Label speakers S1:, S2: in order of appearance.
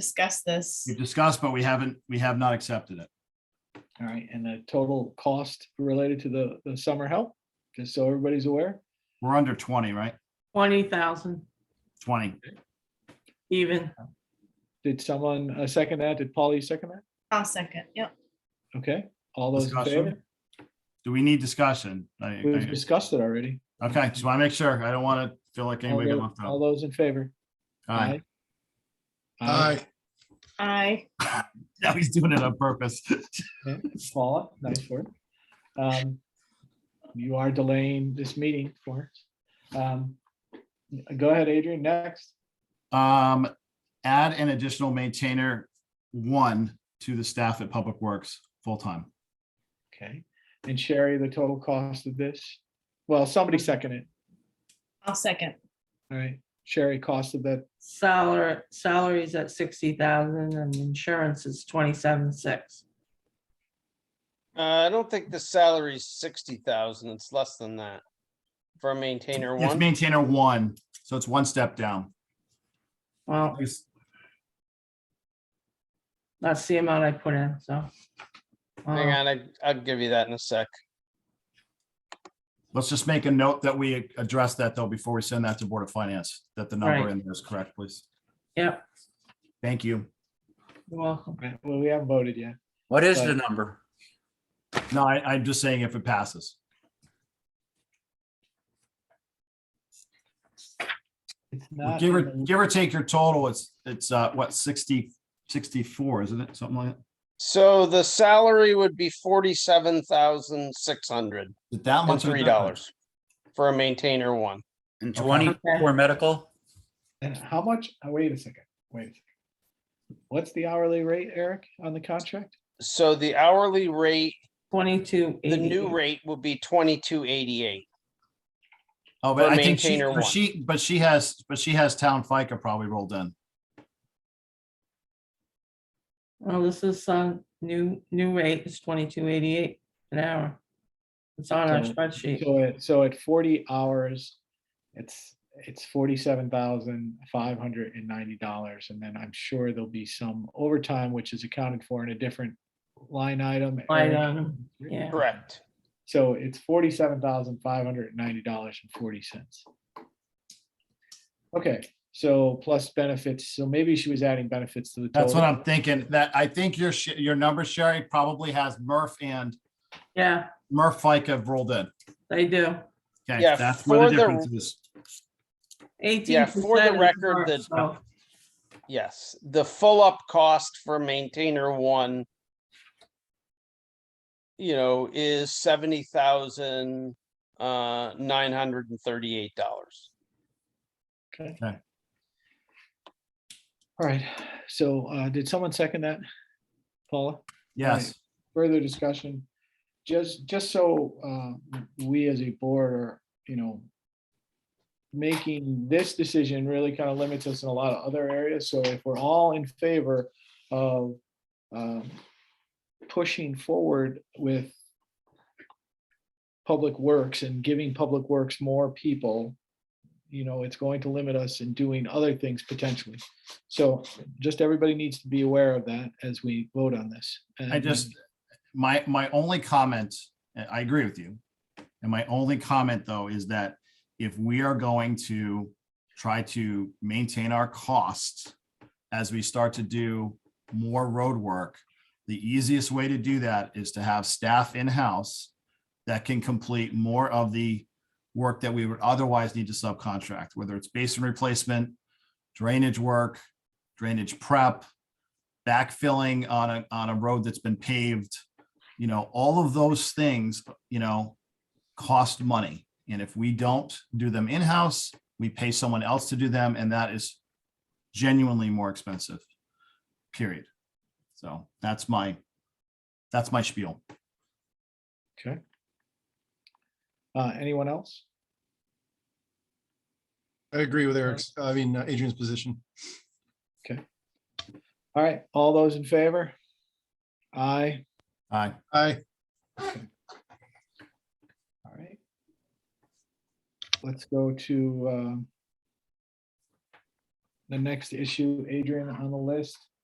S1: discussed this.
S2: We've discussed, but we haven't, we have not accepted it.
S3: All right, and the total cost related to the, the summer help, just so everybody's aware.
S2: We're under twenty, right?
S4: Twenty thousand
S2: Twenty.
S4: even.
S3: Did someone uh, second that? Did Polly second that?
S1: I'll second, yep.
S3: Okay, all those in favor?
S2: Discussion? Do we need discussion? I-
S3: We've discussed it already.
S2: I- Okay, just want to make sure. I don't want to feel like
S3: All
S2: anybody got
S3: tho-
S2: left
S3: all
S2: out.
S3: those in favor?
S2: Aye.
S3: Aye.
S1: I,
S2: Now he's doing it on purpose.
S3: Paula, nice work. Um, You are delaying this meeting for us. Um, Go ahead, Adrian, next.
S2: Um, add an additional maintainer one to the staff at Public Works, full-time.
S3: Okay, and Sherry, the total cost of this? Well, somebody second it,
S1: I'll second.
S3: all right? Sherry, cost of that,
S4: Salary, salaries at sixty thousand and insurance is twenty-seven six.
S5: Uh, I don't think the salary's sixty thousand. It's less than that. For a maintainer
S2: It's
S5: one,
S2: maintainer one, so it's one step down.
S4: Well, that's the amount I put in, so.
S5: hang
S4: uh,
S5: on, I, I'll give you that in a sec.
S2: Let's just make a note that we address that though before we send that to Board of Finance, that the number
S4: Right.
S2: in there is correct, please.
S4: Yep,
S2: Thank you.
S4: you're welcome.
S3: well, we haven't voted yet.
S6: What is the
S3: But-
S6: number?
S2: No, I, I'm just saying if it passes.
S3: It's not.
S2: Give or,
S3: in the-
S2: give or take your total, it's, it's, uh, what, 60 64, isn't it? Something like that?
S5: So the salary would be forty-seven thousand six hundred
S2: Is it That
S5: and
S2: much. of a
S5: three
S2: difference?
S5: dollars for a maintainer one.
S6: And
S2: Okay.
S6: twenty for medical?
S3: And how much, oh, wait a second, wait. a second. What's the hourly rate, Eric, on the contract?
S5: So the hourly rate,
S4: Twenty-two.
S5: the new rate will be twenty-two eighty-eight.
S2: Oh, but
S5: for
S2: I think she,
S5: maintainer
S2: but
S5: one.
S2: she, but she has, but she has town FICA probably rolled in.
S4: Well, this is some new, new rate is twenty-two eighty-eight an hour. It's on our
S3: So-
S4: spreadsheet.
S3: So at, so at forty hours, it's, it's forty-seven thousand five hundred and ninety dollars. And then I'm sure there'll be some overtime, which is accounted for in a different line item.
S4: Line
S3: Eric.
S4: item, yeah.
S5: Correct.
S3: So it's forty-seven thousand five hundred and ninety dollars and forty cents. Okay, so plus benefits, so maybe she was adding benefits to the.
S2: That's what
S3: total.
S2: I'm thinking, that, I think your, sh- your number, Sherry, probably has Murph and
S4: Yeah,
S2: Murph FICA rolled in.
S4: they do.
S2: Okay,
S5: Yeah,
S2: that's where
S5: for the-
S2: the difference is.
S4: Eighteen.
S5: for the record, the- Yes, the full-up cost for maintainer one. You know, is seventy thousand, uh, nine hundred and thirty-eight dollars.
S3: Okay.
S2: Okay.
S3: All right, so uh, did someone second that? Paula,
S2: Yes,
S3: further discussion? Just, just so uh, we as a board are, you know, making this decision really kind of limits us in a lot of other areas. So if we're all in favor of um, pushing forward with public works and giving public works more people, you know, it's going to limit us in doing other things potentially. So just everybody needs to be aware of that as we vote on this.
S2: I just, my, my only comment, and I agree with you. And my only comment though is that if we are going to try to maintain our costs as we start to do more road work, the easiest way to do that is to have staff in-house that can complete more of the work that we would otherwise need to subcontract, whether it's basin replacement, drainage work, drainage prep, backfilling on a, on a road that's been paved, you know, all of those things, you know, cost money. And if we don't do them in-house, we pay someone else to do them, and that is genuinely more expensive, period. So that's my, that's my spiel.
S3: Uh, Anyone else?
S7: I agree with Eric's, I mean uh, Adrian's position.
S3: All right, all those in favor? Aye.
S2: Aye.
S7: I,
S3: All right. Let's go to um, the next issue, Adrian, on the list.